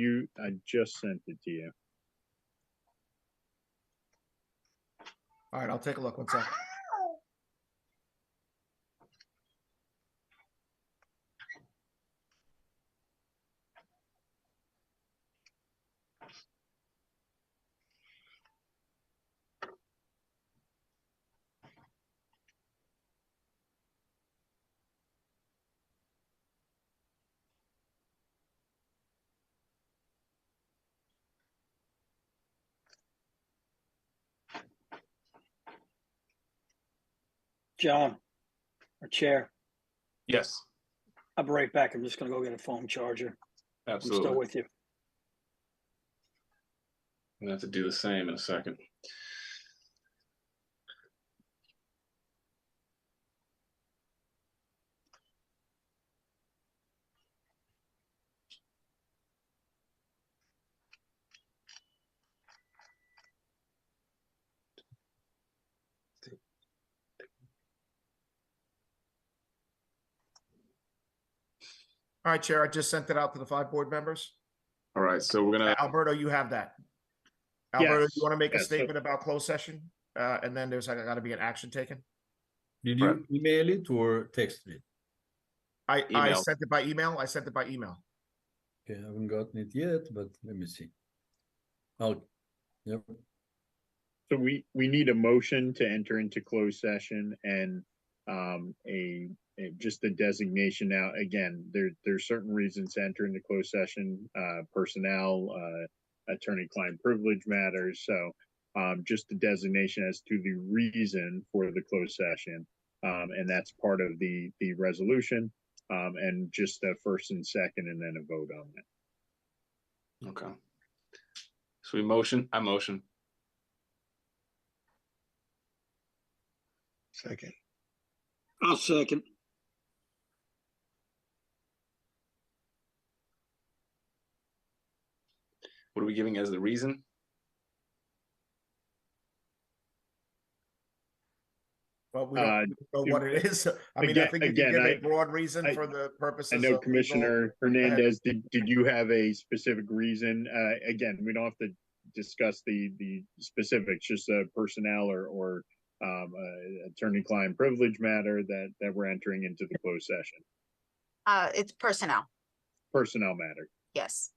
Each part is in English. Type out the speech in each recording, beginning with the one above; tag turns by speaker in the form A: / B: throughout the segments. A: You, I just sent it to you.
B: All right, I'll take a look. One sec.
C: John, our chair,
D: Yes,
C: I'll be right back. I'm just gonna go get a phone charger. I'm still
D: absolutely.
C: with you.
D: I'm gonna have to do the same in a second.
B: All right, Chair, I just sent it out to the five board members.
D: All right, so we're gonna,
B: Alberto, you have that. Alberto,
A: Yes,
B: you want to make a
A: yes, so-
B: statement about closed session? Uh, and then there's like, got to be an action taken.
E: Did
D: Right.
E: you email it or text it?
B: I, I
D: Email.
B: sent it by email. I sent it by email.
E: Okay, I haven't gotten it yet, but let me see. Oh, yep,
A: So we, we need a motion to enter into closed session and, um, a, a- just a designation now. Again, there, there's certain reasons to enter into closed session, uh, personnel, uh, attorney-client privilege matters. So, um, just the designation as to the reason for the closed session. Um, and that's part of the, the resolution, um, and just a first and second and then a vote on it.
D: okay. So we motion, I motion.
F: Second.
C: I'll second.
D: What are we giving as the reason?
B: But we
A: Uh,
B: don't know what it is. I mean, I
A: again-
B: think you
A: again,
B: can give a
A: I-
B: broad reason
A: I-
B: for the purposes.
A: I
B: of
A: know
B: legal-
A: Commissioner
B: ahead.
A: Hernandez, did, did you have a specific reason? Uh, again, we don't have to discuss the, the specifics, just uh personnel or, or, um, uh, attorney-client privilege matter that, that we're entering into the closed session,
G: Uh, it's personnel,
A: personnel matter.
G: yes.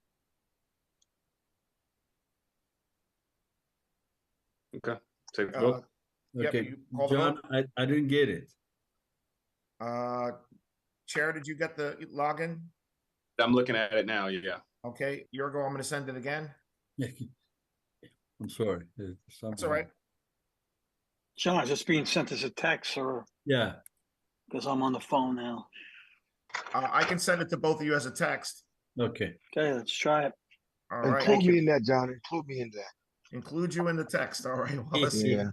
D: Okay, take the
B: Uh,
D: vote.
B: Yep,
E: okay.
B: you call the
E: John, I, I didn't get it.
B: Uh, Chair, did you get the login?
D: I'm looking at it now, yeah.
B: Okay, Yurgo, I'm going to send it again.
E: I'm sorry. uh,
B: That's
E: somehow-
B: all right.
C: John, is this being sent as a text or,
E: Yeah,
C: because I'm on the phone now.
B: Uh, I can send it to both of you as a text.
E: okay.
C: Okay, let's try it.
B: All
F: Include
B: right,
F: me in that, John. Include me in that.
B: include you in the text. All right, well, let's see.
F: Yeah.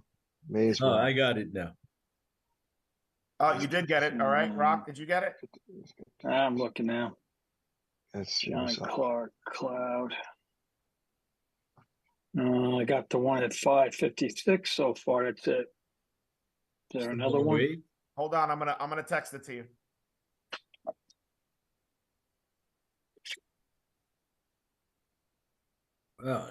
F: May as
E: Oh,
F: well.
E: I got it now.
B: Oh, you did get it. All
A: Mm-hmm.
B: right, Rock, did you get it?
C: I'm looking now.
F: Let's see
C: John
F: what's up.
C: Clark, Cloud. Uh, I got the one at five fifty-six so far. That's it. Is there another one?
E: Wait,
B: Hold on, I'm gonna, I'm gonna text it to you.
E: uh,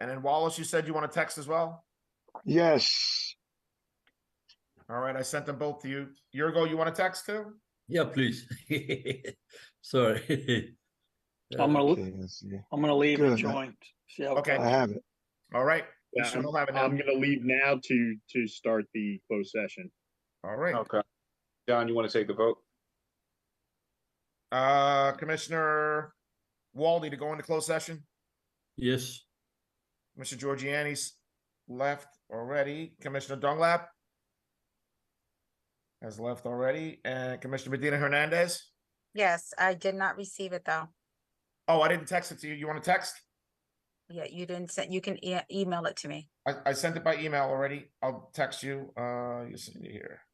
B: And then Wallace, you said you want to text as well?
F: Yes.
B: All right, I sent them both to you. Yurgo, you want to text too?
E: Yeah, please. Sorry.
C: I'm
E: Uh,
C: gonna,
F: Okay, let's see.
C: I'm gonna leave and
F: Good.
C: join. See how. it
B: Okay.
F: I have it.
B: All right. we
A: Yeah,
B: should
A: I'm,
B: all have it now.
A: I'm gonna leave now to, to start the closed session.
B: All right,
D: Okay. John, you want to take the vote?
B: uh, Commissioner Walde to go into closed session.
E: Yes,
B: Commissioner Giorgiani's left already. Commissioner Dunglap has left already, and Commissioner Medina Hernandez.
G: Yes, I did not receive it though.
B: Oh, I didn't text it to you. You want to text?
G: Yeah, you didn't send, you can e- email it to me.
B: I, I sent it by email already. I'll text you. Uh, you send it here.